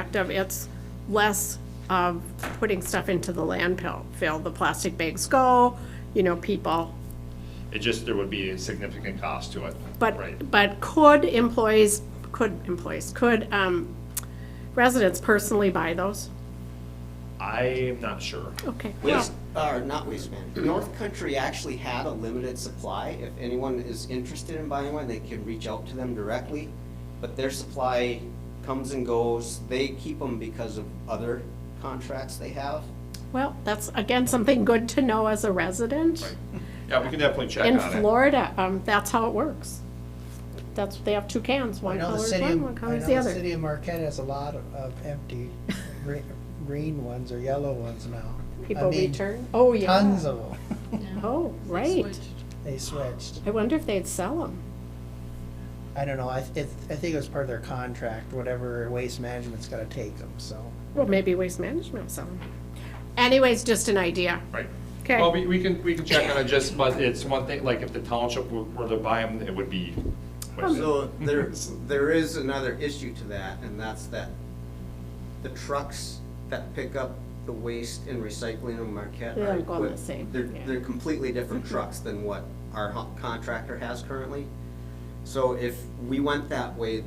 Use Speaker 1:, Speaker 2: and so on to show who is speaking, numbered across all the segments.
Speaker 1: effective. It's less of putting stuff into the landfill. Fill the plastic bags go, you know, people.
Speaker 2: It just, there would be a significant cost to it. Right.
Speaker 1: But, but could employees, could employees, could um, residents personally buy those?
Speaker 2: I am not sure.
Speaker 1: Okay.
Speaker 3: Waste, or not waste man, North Country actually had a limited supply. If anyone is interested in buying one, they can reach out to them directly. But their supply comes and goes. They keep them because of other contracts they have.
Speaker 1: Well, that's, again, something good to know as a resident.
Speaker 2: Yeah, we can definitely check
Speaker 1: In
Speaker 2: on it.
Speaker 1: Florida, um, that's how it works. That's, they have two cans,
Speaker 4: I
Speaker 1: one
Speaker 4: know the
Speaker 1: color is
Speaker 4: city,
Speaker 1: one, one
Speaker 4: of-
Speaker 1: color
Speaker 4: I
Speaker 1: is the
Speaker 4: know the
Speaker 1: other.
Speaker 4: city of Marquette has a lot of- of empty gre- green ones or yellow ones now. I
Speaker 1: People
Speaker 4: mean,
Speaker 1: return, oh, yeah.
Speaker 4: Tons of them.
Speaker 1: Oh, right.
Speaker 4: They switched.
Speaker 1: I wonder if they'd sell them.
Speaker 4: I don't know, I, th- it- I think it was part of their contract, whatever waste management's gotta take them, so.
Speaker 1: Well, maybe Waste Management will sell them. Anyways, just an idea.
Speaker 2: Right.
Speaker 1: Okay.
Speaker 2: Well, we, we can, we can check on it just, but it's one thing, like if the township were were to buy them, it would be.
Speaker 3: So there, there is another issue to that, and that's that the trucks that pick up the waste and recycling in Marquette
Speaker 1: They
Speaker 3: are
Speaker 1: don't go on the
Speaker 3: equipped-
Speaker 1: same,
Speaker 3: They're,
Speaker 1: yeah.
Speaker 3: they're completely different trucks than what our hu- contractor has currently. So if we went that way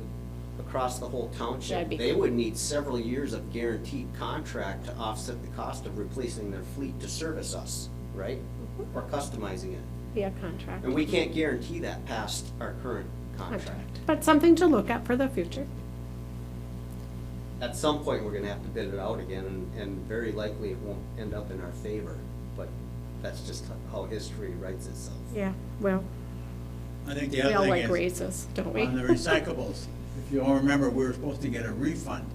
Speaker 3: across the whole
Speaker 1: That'd
Speaker 3: township,
Speaker 1: be
Speaker 3: they
Speaker 1: cool.
Speaker 3: would need several years of guaranteed contract to offset the cost of replacing their fleet to service us, right?
Speaker 1: Mm-hmm.
Speaker 3: Or customizing it.
Speaker 1: Yeah, contract.
Speaker 3: And we can't guarantee that past our current contract.
Speaker 1: But something to look at for the future.
Speaker 3: at some point, we're gonna have to bid it out again, and, and very likely it won't end up in our favor, but that's just how history writes itself.
Speaker 1: Yeah, well,
Speaker 5: I think the
Speaker 1: we
Speaker 5: other
Speaker 1: all
Speaker 5: thing
Speaker 1: like
Speaker 5: is,
Speaker 1: raises, don't we?
Speaker 5: on the recyclables, if you all remember, we were supposed to get a refund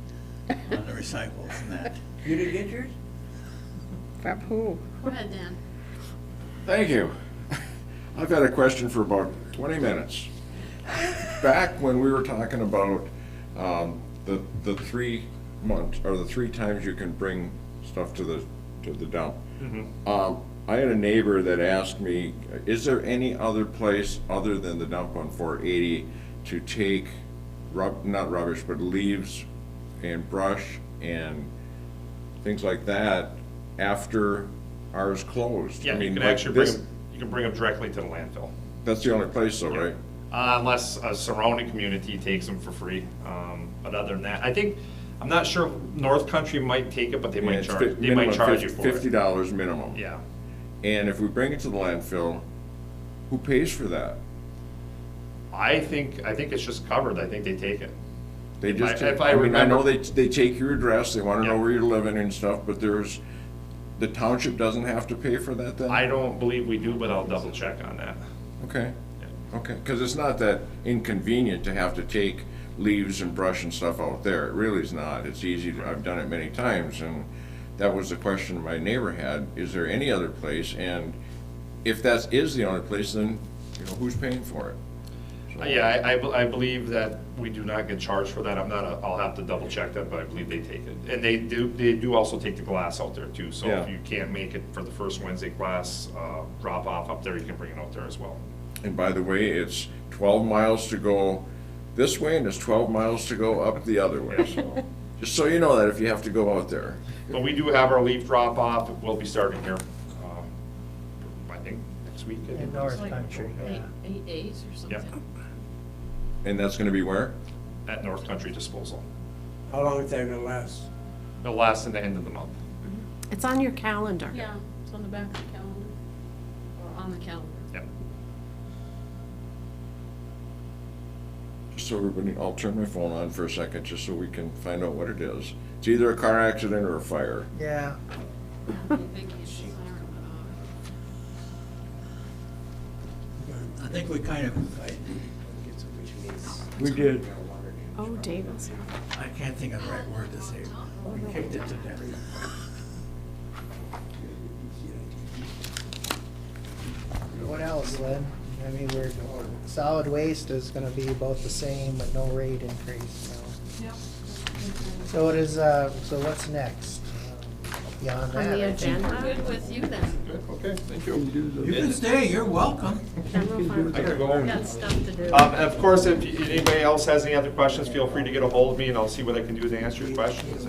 Speaker 5: on the recyclables and that.
Speaker 6: You didn't get yours?
Speaker 1: From who?
Speaker 7: Go ahead, Dan.
Speaker 8: Thank you. I've had a question for about 20 minutes. Back when we were talking about um, the, the three months, or the three times you can bring stuff to the, to the dump.
Speaker 2: Mm-hmm.
Speaker 8: Um, I had a neighbor that asked me, is there any other place other than the dump on 480 to take rub, not rubbish, but leaves and brush and things like that after ours closed? I
Speaker 2: Yeah, you
Speaker 8: mean,
Speaker 2: can
Speaker 8: like
Speaker 2: actually bring
Speaker 8: this-
Speaker 2: them, you can bring them directly to the landfill.
Speaker 8: that's the only place though, right?
Speaker 2: Uh, unless a surrounding community takes them for free. Um, but other than that, I think, I'm not sure, if North Country might take it, but they
Speaker 8: And
Speaker 2: might
Speaker 8: it's
Speaker 2: charge,
Speaker 8: fif-
Speaker 2: they might
Speaker 8: minimum
Speaker 2: charge
Speaker 8: fif-
Speaker 2: you for
Speaker 8: Fifty
Speaker 2: it.
Speaker 8: dollars minimum.
Speaker 2: Yeah.
Speaker 8: And if we bring it to the landfill, who pays for that?
Speaker 2: I think, I think it's just covered. I think they take it.
Speaker 8: They
Speaker 2: If I-
Speaker 8: just, take-
Speaker 2: if I
Speaker 8: I mean, I know
Speaker 2: remember-
Speaker 8: they, they take your address, they wanna know
Speaker 2: Yeah.
Speaker 8: where you're living and stuff, but there's, the township doesn't have to pay for that then?
Speaker 2: I don't believe we do, but I'll double check on that.
Speaker 8: Okay, okay, cause it's not that inconvenient to have to take leaves and brush and stuff out there, it really is not, it's easy, to- I've done it many times, and that was the question my neighbor had, is there any other place, and if that is the only place, then, you know, who's paying for it? So-
Speaker 2: Uh, Yeah, I, I be- I believe that we do not get charged for that. I'm not, a- I'll have to double check that, but I believe they take it. And they do, they do also take the glass out there too. So if
Speaker 8: Yeah.
Speaker 2: you can't make it for the first Wednesday glass, uh, drop off up there, you can bring it out there as well.
Speaker 8: And by the way, it's twelve miles to go this way, and it's twelve miles to go up the other way, so, just so you know that if you have to go out there.
Speaker 2: But we do have our leaf drop off. We'll be starting here, um, I think next week. I
Speaker 4: In
Speaker 2: think.
Speaker 4: North
Speaker 7: Like
Speaker 4: Country,
Speaker 7: Eight
Speaker 4: yeah.
Speaker 7: eight days or something.
Speaker 8: And that's gonna be where?
Speaker 2: At North Country Disposal.
Speaker 6: How long is that gonna last?
Speaker 2: The last and the end of the month.
Speaker 1: It's on your calendar.
Speaker 7: Yeah, it's on the back of the calendar, or on the calendar.
Speaker 2: Yep.
Speaker 8: Just so everybody, I'll turn my phone on for a second, just so we can find out what it is. It's either a car accident or a fire.
Speaker 4: Yeah,
Speaker 7: I think it's siren went off.
Speaker 5: I think we kind of, I,
Speaker 3: Which means.
Speaker 8: We did.
Speaker 1: Oh, Davis.
Speaker 5: I can't think of the right word to say. We kicked it to death.
Speaker 4: what else, Lynn? I mean, we're, solid waste is gonna be about the same, but no rate increase, so.
Speaker 7: Yep.
Speaker 4: So it is, uh, so what's next? Um, beyond
Speaker 1: on the
Speaker 4: that.
Speaker 1: agenda.
Speaker 7: Good with you then.
Speaker 2: Good, okay, thank you.
Speaker 5: You can stay, you're welcome.
Speaker 1: General fund.
Speaker 2: I could go home.
Speaker 7: Got stuff to do.
Speaker 2: Um, and of course, if anybody else has any other questions, feel free to get a hold of me and I'll see what I can do to answer your questions.